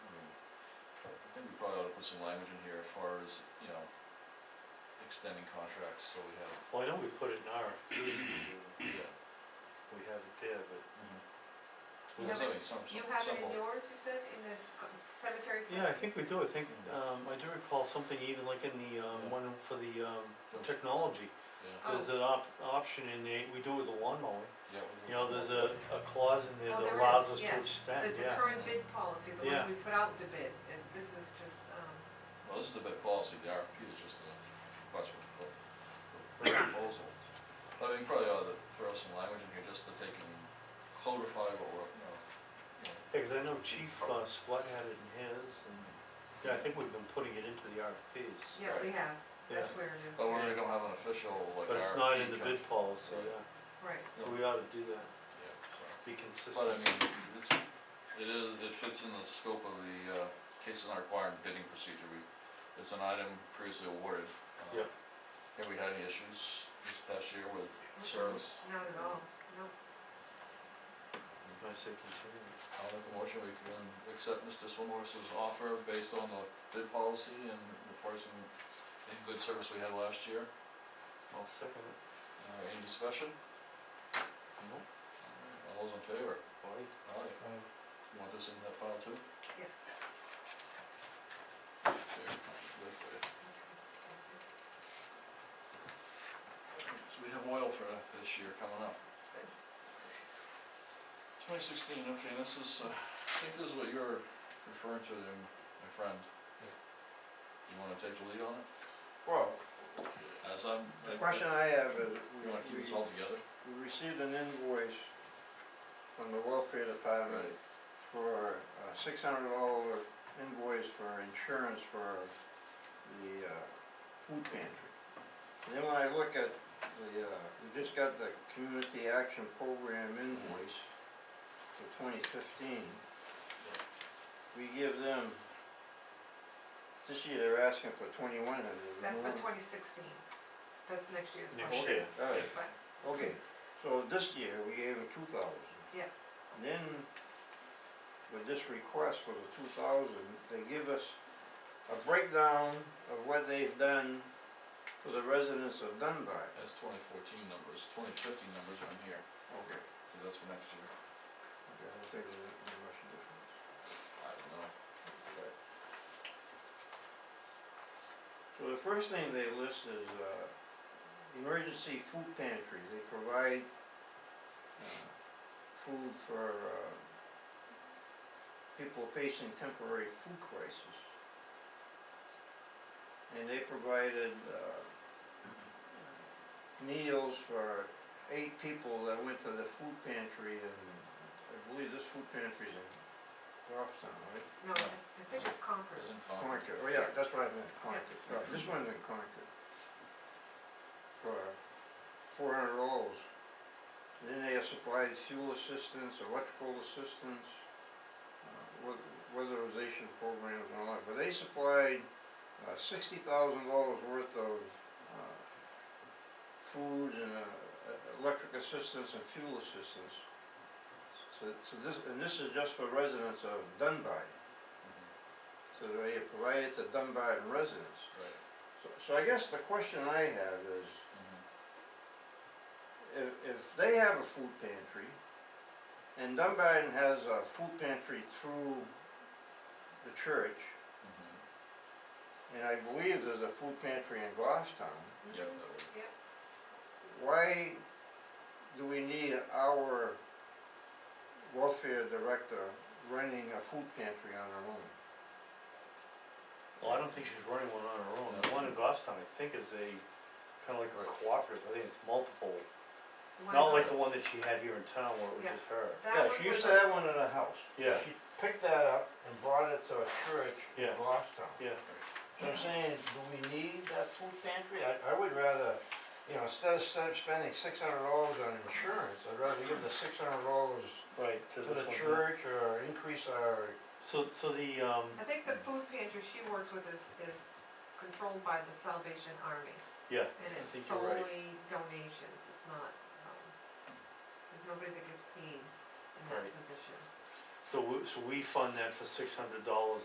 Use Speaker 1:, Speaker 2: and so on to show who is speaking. Speaker 1: put some language in here as far as, you know, extending contracts, so we have,
Speaker 2: Well, I know we put it in RFPs, we,
Speaker 1: yeah.
Speaker 2: we have it there, but
Speaker 1: Well,
Speaker 3: You have
Speaker 1: something, some,
Speaker 3: You
Speaker 1: some,
Speaker 3: have it
Speaker 1: some,
Speaker 3: in
Speaker 1: will-
Speaker 3: yours, you said, in the c- cemetery?
Speaker 2: Yeah, I think we do, I think,
Speaker 1: Mhm.
Speaker 2: um, I do recall something even like in the,
Speaker 1: Yeah.
Speaker 2: um, one for the, um,
Speaker 1: Those-
Speaker 2: technology.
Speaker 1: yeah,
Speaker 3: Oh.
Speaker 2: There's an op- option in there, we do it with the lawn mowing,
Speaker 1: yeah. we-
Speaker 2: you know, there's a, a clause in there
Speaker 3: Oh,
Speaker 2: that
Speaker 3: there
Speaker 2: allows
Speaker 3: is,
Speaker 2: us to
Speaker 3: yes.
Speaker 2: extend,
Speaker 3: The, the
Speaker 2: yeah.
Speaker 3: current bid policy, the
Speaker 2: Yeah.
Speaker 3: one we put out the bid, and this is just, um,
Speaker 1: Well, this is the bid policy, the RFP is just a request for propo- for proposal. But I mean, probably ought to throw some language in here just to take and clarify what we're, you know, you know,
Speaker 2: Yeah, 'cause I know Chief, uh, Splett had it in his, and, yeah, I think we've been putting it into the RFPs,
Speaker 3: yeah, we have,
Speaker 2: yeah,
Speaker 3: that's where it is,
Speaker 1: but we really don't have an official like RFP.
Speaker 2: but it's not in the
Speaker 1: co-
Speaker 2: bid policy, yeah,
Speaker 3: right,
Speaker 2: so we ought to do that,
Speaker 1: Yeah, so.
Speaker 2: be
Speaker 1: But I
Speaker 2: consistent,
Speaker 1: mean, it's, it is, it fits in the scope of the, uh, cases not requiring bidding procedure, we, it's an item previously awarded. Uh,
Speaker 2: Yep.
Speaker 1: Have we had any issues this past year with service?
Speaker 3: not at all, no,
Speaker 2: I say continue.
Speaker 1: I'll make a motion, we can accept Mr. Swimmer's offer based on the bid policy and the pricing and good service we had last year.
Speaker 2: I'll second it,
Speaker 1: Uh, any discussion?
Speaker 2: no,
Speaker 1: All those in favor?
Speaker 2: why?
Speaker 1: Alright, you want this in that file too?
Speaker 3: Yeah.
Speaker 1: There, this way. So we have oil for this year coming up. Twenty sixteen, okay, this is, uh, I think this is what you're referring to there, my friend. You wanna take the lead on it?
Speaker 4: Well,
Speaker 1: As I'm,
Speaker 4: the
Speaker 1: I-
Speaker 4: question I have is,
Speaker 1: you wanna
Speaker 4: we,
Speaker 1: keep this all
Speaker 4: we
Speaker 1: together?
Speaker 4: we received an invoice from the welfare department for a six hundred dollar invoice for insurance for the, uh, food pantry. And then when I look at the, uh, we just got the community action program invoice for twenty fifteen. We give them, this year they're asking for twenty-one hundred.
Speaker 3: that's for twenty sixteen, that's next year's
Speaker 2: Next
Speaker 3: budget,
Speaker 2: year.
Speaker 4: All right,
Speaker 3: but,
Speaker 4: Okay, so this year, we gave them two thousand.
Speaker 3: Yeah.
Speaker 4: And then, with this request for the two thousand, they give us a breakdown of what they've done for the residents of Dunbar.
Speaker 1: That's twenty fourteen numbers, twenty fifteen numbers are in here,
Speaker 4: Okay.
Speaker 1: so that's for next year,
Speaker 4: Okay, I'll take the, the Russian difference.
Speaker 1: I don't know.
Speaker 4: Okay. So the first thing they list is, uh, emergency food pantry, they provide, uh, food for, uh, people facing temporary food crisis. And they provided, uh, meals for eight people that went to the food pantry in, I believe this food pantry's in Goffstown, right?
Speaker 3: no, I I think it's Concord,
Speaker 1: Prison con-
Speaker 4: Concord, oh yeah, that's what I meant, Concord, right, this one's in Concord. For four hundred dollars. Then they have supplied fuel assistance, electrical assistance, uh, wea- weatherization programs and all that, but they supplied uh, sixty thousand dollars worth of, uh, food and, uh, e- electric assistance and fuel assistance. So, so this, and this is just for residents of Dunbar.
Speaker 1: Mhm,
Speaker 4: So they provide it to Dunbarton residents.
Speaker 1: Right,
Speaker 4: So, so I guess the question I have is,
Speaker 1: mhm,
Speaker 4: if, if they have a food pantry, and Dunbarton has a food pantry through the church,
Speaker 1: mhm,
Speaker 4: and I believe there's a food pantry in Goffstown,
Speaker 1: yep, that would,
Speaker 4: why do we need our welfare director running a food pantry on her own?
Speaker 2: Well, I don't think she's running one on her own, the one in Goffstown, I think is a, kinda like a cooperative, I think it's multiple,
Speaker 3: One
Speaker 2: not
Speaker 3: of
Speaker 2: like the
Speaker 3: them.
Speaker 2: one that she had here in town where it was
Speaker 3: Yeah.
Speaker 2: just her.
Speaker 3: That
Speaker 4: Yeah, she
Speaker 3: one
Speaker 4: used
Speaker 3: was,
Speaker 4: to have one in her house.
Speaker 2: Yeah.
Speaker 4: She picked that up and brought it to a church in
Speaker 2: Yeah.
Speaker 4: Goffstown.
Speaker 2: Yeah.
Speaker 4: So I'm saying, do we need that food pantry? I, I would rather, you know, instead of st- spending six hundred dollars on insurance, I'd rather give the six hundred dollars
Speaker 2: Right, to
Speaker 4: to
Speaker 2: this
Speaker 4: the
Speaker 2: one. here.
Speaker 4: church or increase our,
Speaker 2: So, so the, um,
Speaker 3: I think the food pantry she works with is, is controlled by the Salvation Army.
Speaker 2: yeah,
Speaker 3: And
Speaker 2: I
Speaker 3: it's
Speaker 2: think you're right.
Speaker 3: solely donations, it's not, um, there's nobody that gets paid in that
Speaker 2: Right.
Speaker 3: position.
Speaker 2: So we, so we fund that for six hundred dollars